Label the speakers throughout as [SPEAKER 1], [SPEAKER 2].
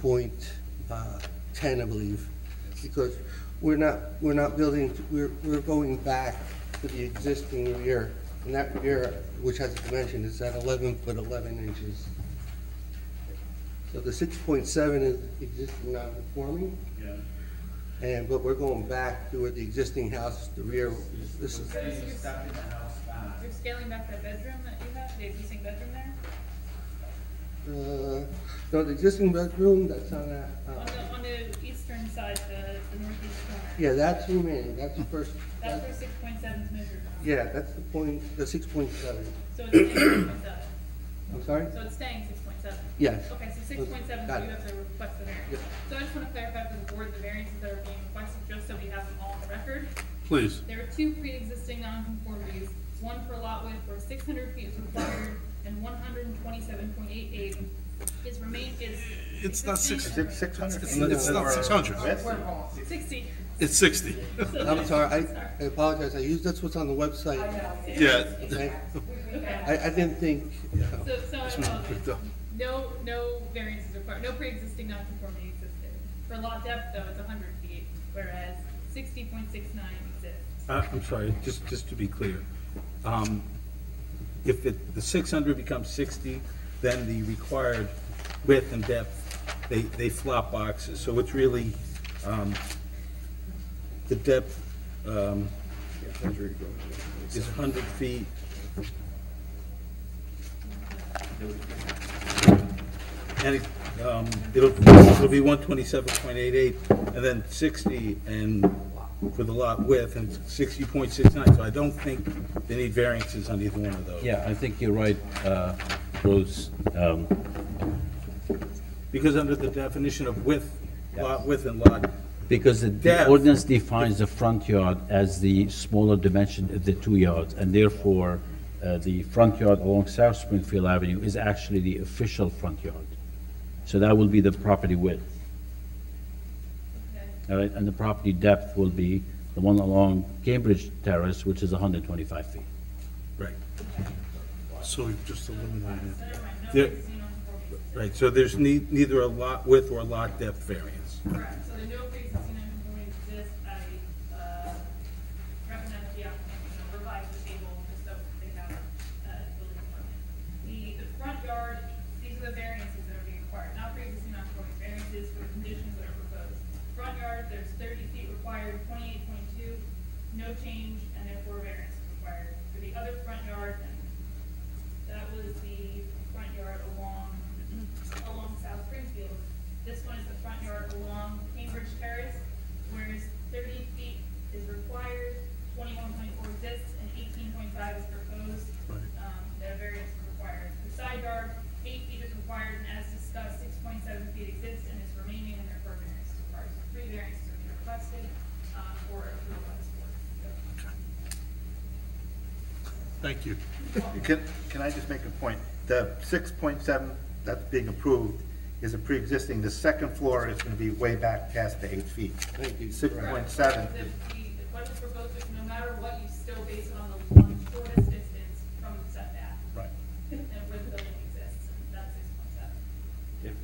[SPEAKER 1] point uh, 10, I believe, because we're not, we're not building, we're, we're going back to the existing rear, and that rear, which has a dimension, is at 11 foot 11 inches. So the 6.7 is existing non-conforming,
[SPEAKER 2] Yeah.
[SPEAKER 1] and, but we're going back to where the existing house, the rear, this is, uh,
[SPEAKER 2] Saying you're stepping the house back.
[SPEAKER 3] You're scaling back that bedroom that you have, the existing bedroom there?
[SPEAKER 1] uh, no, the existing bedroom, that's on that, uh,
[SPEAKER 3] On the, on the eastern side, the, the northeast corner?
[SPEAKER 1] yeah, that's remaining, that's the first,
[SPEAKER 3] That's where six point seven is measured from.
[SPEAKER 1] Yeah, that's the point, the six point seven.
[SPEAKER 3] So it's staying six point seven.
[SPEAKER 1] I'm sorry?
[SPEAKER 3] So it's staying six point seven?
[SPEAKER 1] Yes.
[SPEAKER 3] Okay, so six point seven,
[SPEAKER 1] Got
[SPEAKER 3] you
[SPEAKER 1] it.
[SPEAKER 3] have to request the
[SPEAKER 1] Yeah.
[SPEAKER 3] variance. So I just want to clarify for the board, the variances that are being requested, just so we have them all on the record.
[SPEAKER 4] Please.
[SPEAKER 3] There are two pre-existing nonconformities, one for lot width where six hundred feet is required and one hundred and twenty-seven point eight eight is remain, is.
[SPEAKER 4] It's not
[SPEAKER 3] existing-
[SPEAKER 5] Six,
[SPEAKER 4] six-
[SPEAKER 5] six hundred
[SPEAKER 4] It's
[SPEAKER 5] feet.
[SPEAKER 4] not- it's not
[SPEAKER 5] or-
[SPEAKER 4] 600.
[SPEAKER 5] That's-
[SPEAKER 3] We're wrong. Sixty.
[SPEAKER 4] It's 60.
[SPEAKER 1] I'm sorry, I- I apologize, I used, that's what's on the website.
[SPEAKER 4] Yeah.
[SPEAKER 1] Okay?
[SPEAKER 3] Okay.
[SPEAKER 1] I, I didn't think, you know,
[SPEAKER 3] So, so I
[SPEAKER 4] picked
[SPEAKER 3] apologize.
[SPEAKER 4] up.
[SPEAKER 3] No, no variances required, no pre-existing nonconformity existed. For lot depth though, it's hundred feet, whereas sixty point six nine exists.
[SPEAKER 4] Uh, I'm sorry, just, just to be clear. Um, If it- the 600 becomes 60, then the required width and depth, they, they flop boxes. So it's really um, the depth um, is 100 feet. And it, um, it'll, it'll be one twenty-seven point eight-eight, and then sixty, and for the lot width, and sixty point six-nine, so I don't think they need variances on either one of those.
[SPEAKER 6] Yeah, I think you're right, uh, Bruce. Um,
[SPEAKER 4] Because under the definition of width, lot width and lot,
[SPEAKER 6] Because the- the
[SPEAKER 4] Depth.
[SPEAKER 6] ordinance defines the front yard as the smaller dimension of the two yards, and therefore, uh, the front yard along South Springfield Avenue is actually the official front yard. So that will be the property width,
[SPEAKER 3] Okay.
[SPEAKER 6] all right? And the property depth will be the one along Cambridge Terrace, which is 125 feet.
[SPEAKER 4] right. So we've just eliminated.
[SPEAKER 3] So never mind, no
[SPEAKER 4] There-
[SPEAKER 3] pre-existing nonconformities.
[SPEAKER 4] Right, so there's nee- neither a lot width or lot depth variance.
[SPEAKER 3] Correct, so there are no pre-existing non-conformities exist, I, uh, recommend that the applicant, you know, revise the table, just so they have, uh, building department. The, the front yard, these are the variances that are being required, not pre-existing non-conforming variances for the conditions that are proposed. Front yard, there's thirty feet required, twenty-eight point two, no change, and therefore variance is required. For the other front yard, that was the front yard along, along South Springfield. This one is the front yard along Cambridge Terrace, whereas thirty feet is required, twenty-one point four exists, and eighteen point five is proposed.
[SPEAKER 4] Right.
[SPEAKER 3] Um, there are variance is required. The side yard, eight feet is required, and as discussed, six point seven feet exists and is remaining, and therefore variance is required. So Three variances are being requested, um, for approval by this board. So-
[SPEAKER 4] Thank you.
[SPEAKER 5] Can, can I just make a point? The six point seven that's being approved is a pre-existing, the second floor is gonna be way back past the eight feet.
[SPEAKER 1] thank you.
[SPEAKER 5] Six point seven,
[SPEAKER 3] The, the, what is proposed, is no matter what, you still base it on the, on the shortest distance from the setback
[SPEAKER 5] right.
[SPEAKER 3] and where the building exists, and that's six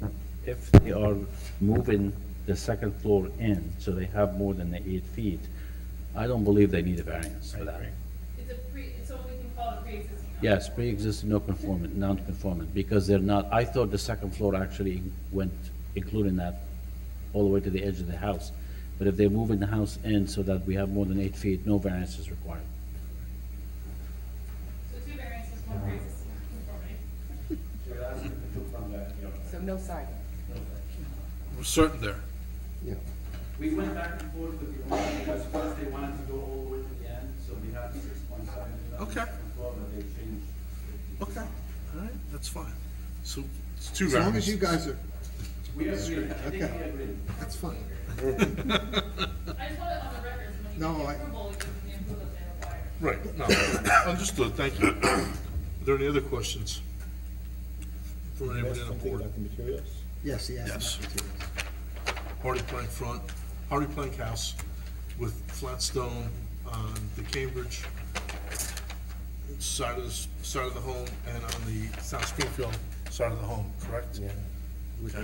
[SPEAKER 3] point seven.
[SPEAKER 6] if they are moving the second floor in, so they have more than the eight feet, I don't believe they need a variance for that.
[SPEAKER 3] It's a pre, it's what we can call a pre-existing. non-
[SPEAKER 6] Yes, pre-existing no conformant, non-conformant, because they're not, I thought the second floor actually went, including that, all the way to the edge of the house. But if they're moving the house in so that we have more than eight feet, no variance is required.
[SPEAKER 3] So two variances, one pre-existing non-conformity.
[SPEAKER 7] So no siding.
[SPEAKER 4] We're certain there.
[SPEAKER 1] Yeah.
[SPEAKER 2] We went back and forth with the owner because first they wanted to go all the way to the end, so we had six point seven.
[SPEAKER 4] Okay.
[SPEAKER 2] but they changed. it.
[SPEAKER 4] Okay, all right, that's fine. So it's two
[SPEAKER 8] As long as you guys are,
[SPEAKER 2] We agree, I think we
[SPEAKER 8] Okay.
[SPEAKER 2] agree.
[SPEAKER 8] that's fine.
[SPEAKER 3] I just want it on the record, so when you
[SPEAKER 8] No,
[SPEAKER 3] get
[SPEAKER 8] I-
[SPEAKER 3] the approval, you can the approval that they require.
[SPEAKER 9] Right, no, understood, thank you. Are there any other questions? From anybody on the board?
[SPEAKER 8] Yes, yes.
[SPEAKER 9] Yes. Hardy plank front, hardy plank house with flat stone on the Cambridge side of, the side of the home and on the South Springfield side of the home, correct?
[SPEAKER 1] With